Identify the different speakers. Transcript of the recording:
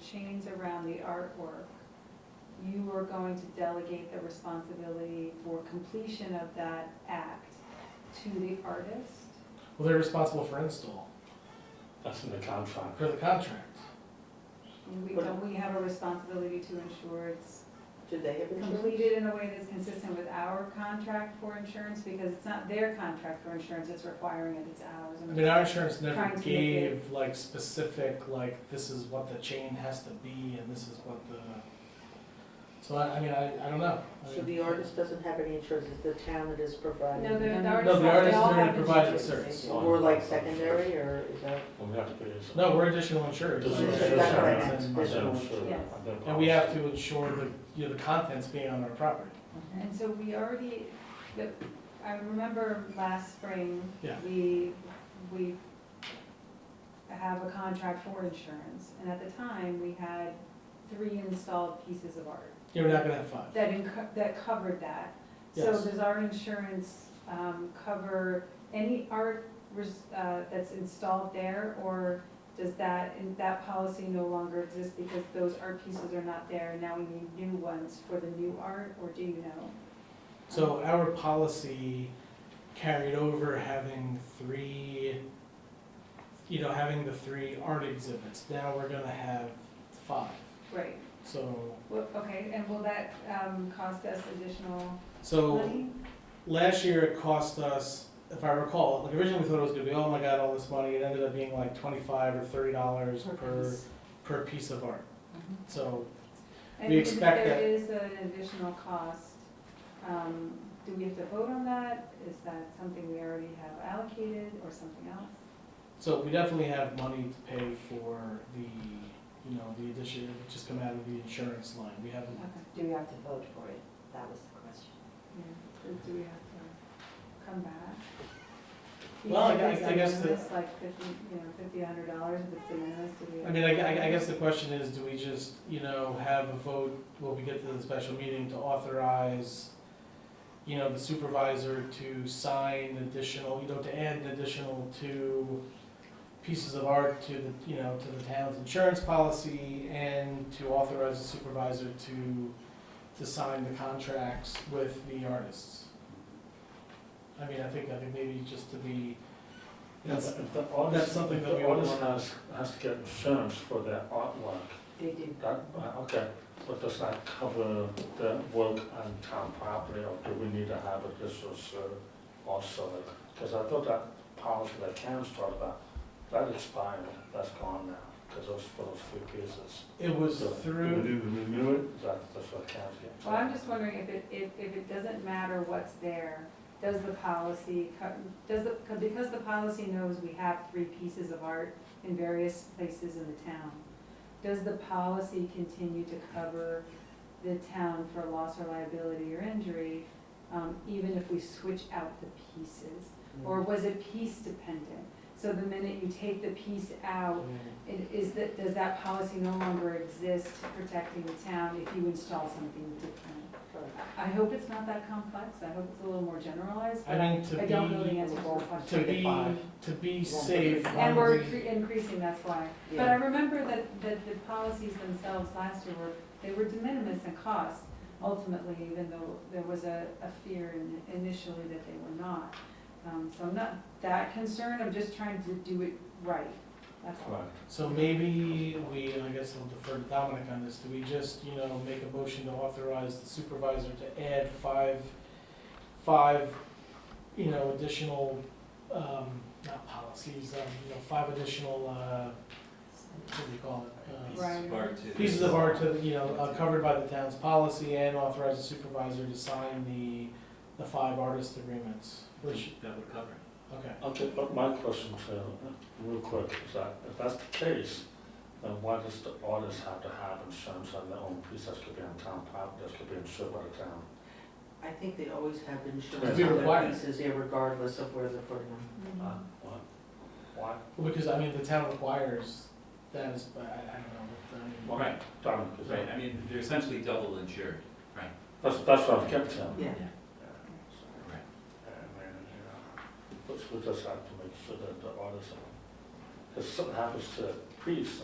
Speaker 1: chains around the artwork, you were going to delegate the responsibility for completion of that act to the artist?
Speaker 2: Well, they're responsible for install,
Speaker 3: That's in the contract.
Speaker 2: for the contract.
Speaker 1: And we, don't we have a responsibility to ensure it's
Speaker 4: Do they have
Speaker 1: completed in a way that's consistent with our contract for insurance? Because it's not their contract for insurance, it's requiring it, it's ours.
Speaker 2: I
Speaker 1: and-
Speaker 2: mean, our insurance
Speaker 1: Trying to
Speaker 2: never
Speaker 1: make
Speaker 2: gave like specific, like, this is what the chain has to be and this is what the, so I, I mean, I, I don't know. I
Speaker 4: So
Speaker 2: mean-
Speaker 4: the artist doesn't have any insurance, it's the town that is providing?
Speaker 1: No, the,
Speaker 5: No,
Speaker 1: the
Speaker 2: No,
Speaker 1: artist,
Speaker 2: the
Speaker 1: they
Speaker 2: artist is
Speaker 1: all
Speaker 2: gonna
Speaker 1: have the
Speaker 2: provide the
Speaker 1: chains.
Speaker 2: service.
Speaker 4: More like secondary, or is that?
Speaker 3: Well, we have to put it in.
Speaker 2: No, we're additional insurers.
Speaker 3: This
Speaker 4: Does
Speaker 3: is
Speaker 4: it-
Speaker 3: insurance.
Speaker 4: That's what I meant.
Speaker 2: And-
Speaker 4: This is
Speaker 3: Then
Speaker 4: insurance.
Speaker 3: sure,
Speaker 1: Yes.
Speaker 3: I've been
Speaker 2: And we have
Speaker 3: promised.
Speaker 2: to ensure the, you know, the contents being on our property.
Speaker 1: And so we already, the, I remember last spring,
Speaker 2: Yeah.
Speaker 1: we, we have a contract for insurance, and at the time, we had three installed pieces of art
Speaker 2: You're not gonna have five.
Speaker 1: that inco- that covered that. So
Speaker 2: Yes.
Speaker 1: does our insurance, um, cover any art res- uh, that's installed there, or does that, and that policy no longer exist because those art pieces are not there, and now we need new ones for the new art, or do you know?
Speaker 2: So our policy carried over having three, you know, having the three art exhibits. Now we're gonna have five.
Speaker 1: Right,
Speaker 2: So,
Speaker 1: Well, okay, and will that, um, cost us additional
Speaker 2: so
Speaker 1: money?
Speaker 2: last year it cost us, if I recall, like originally we thought it was gonna be, oh my god, all this money. It ended up being like twenty-five or thirty dollars per, per piece Mm-hmm. of art. So
Speaker 1: And
Speaker 2: we
Speaker 1: if
Speaker 2: expect
Speaker 1: there
Speaker 2: that-
Speaker 1: is an additional cost, um, do we have to vote on that? Is that something we already have allocated or something else?
Speaker 2: So we definitely have money to pay for the, you know, the addition, it would just come out of the insurance line. We haven't,
Speaker 1: Okay.
Speaker 5: Do we have to vote for it? That was the question.
Speaker 1: Yeah, do- do we have to come back?
Speaker 2: Well, I
Speaker 1: Even if
Speaker 2: guess-
Speaker 1: it's
Speaker 2: I guess
Speaker 1: de
Speaker 2: the-
Speaker 1: minimis, Like fifty, you know, fifty, hundred dollars, if it's de minimis, do we?
Speaker 2: I mean, I, gue- I guess the question is, do we just, you know, have a vote, when we get to the special meeting to authorize, you know, the supervisor to sign additional, you know, to add an additional two pieces of art to the, you know, to the town's insurance policy and to authorize the supervisor to, to sign the contracts with the artists? I mean, I think, I think maybe just to be, that's,
Speaker 3: If the artist-
Speaker 2: that's something
Speaker 3: if
Speaker 2: that we
Speaker 3: The
Speaker 2: would
Speaker 3: artist
Speaker 2: wanna-
Speaker 3: has, has to get insurance for their artwork.
Speaker 5: They do.
Speaker 3: That, uh, okay, but does that cover the work on town property, or do we need to have a business uh, also? Because I thought that policy that Karen's talked about, that expired, that's gone now, because those, for those few pieces.
Speaker 2: it was
Speaker 3: So, do
Speaker 2: through.
Speaker 3: we need to renew it? That, that's what Karen's getting.
Speaker 1: Well, I'm just wondering if it, if, if it doesn't matter what's there, does the policy, co- does the, co- because the policy knows we have three pieces of art in various places in the town, does the policy continue to cover the town for loss or liability or injury, um, even if we switch out the pieces? Or was it piece dependent? So the minute you take the piece out, it- Is that, does that policy no longer exist protecting the town if you install something different? I hope it's not that complex, I hope it's a little more generalized,
Speaker 2: I
Speaker 1: but
Speaker 2: mean, to
Speaker 1: I don't know the
Speaker 2: be,
Speaker 1: answer to the
Speaker 2: to
Speaker 1: question.
Speaker 2: be, to be safe. um,
Speaker 1: And we're
Speaker 2: on the-
Speaker 1: incre- increasing, that's why. But I
Speaker 4: Yeah.
Speaker 1: remember that, that the policies themselves last year were, they were de minimis in cost ultimately, even though there was a, a fear in- initially that they were not. Um, so I'm not that concerned, I'm just trying to do it right, that's all.
Speaker 3: Right.
Speaker 2: So maybe we, I guess I'll defer to Dominic on this, do we just, you know, make a motion to authorize the supervisor to add five, five, you know, additional, um, not policies, um, you know, five additional, uh, what do you call it? Uh,
Speaker 1: Right.
Speaker 2: Pieces of art to, you know, uh, covered by the town's policy and authorize the supervisor to sign the, the five artist agreements, which,
Speaker 6: That would cover it.
Speaker 2: okay.
Speaker 3: Okay, but my question to, you, real quick, is that if that's the case, then why does the artist have to have insurance on their own piece that could be on town property, that could be insured by the town?
Speaker 4: I think they always have
Speaker 3: It'd
Speaker 4: insurance
Speaker 3: be
Speaker 4: on their
Speaker 2: required.
Speaker 4: pieces, yeah, regardless of where they're putting them.
Speaker 1: Mm-hmm.
Speaker 3: Huh? Uh, Why? Why?
Speaker 2: Well, Because, I mean, the town requires that is, I, I don't know, I mean.
Speaker 3: Well,
Speaker 6: Right.
Speaker 3: Dominic, is
Speaker 6: Right, I
Speaker 3: that,
Speaker 6: mean, they're essentially double insured.
Speaker 3: that's, that's what I've kept him.
Speaker 4: Yeah.
Speaker 6: Right.
Speaker 3: And then, you know, but we just have to make sure that the artist, if something happens to the priest,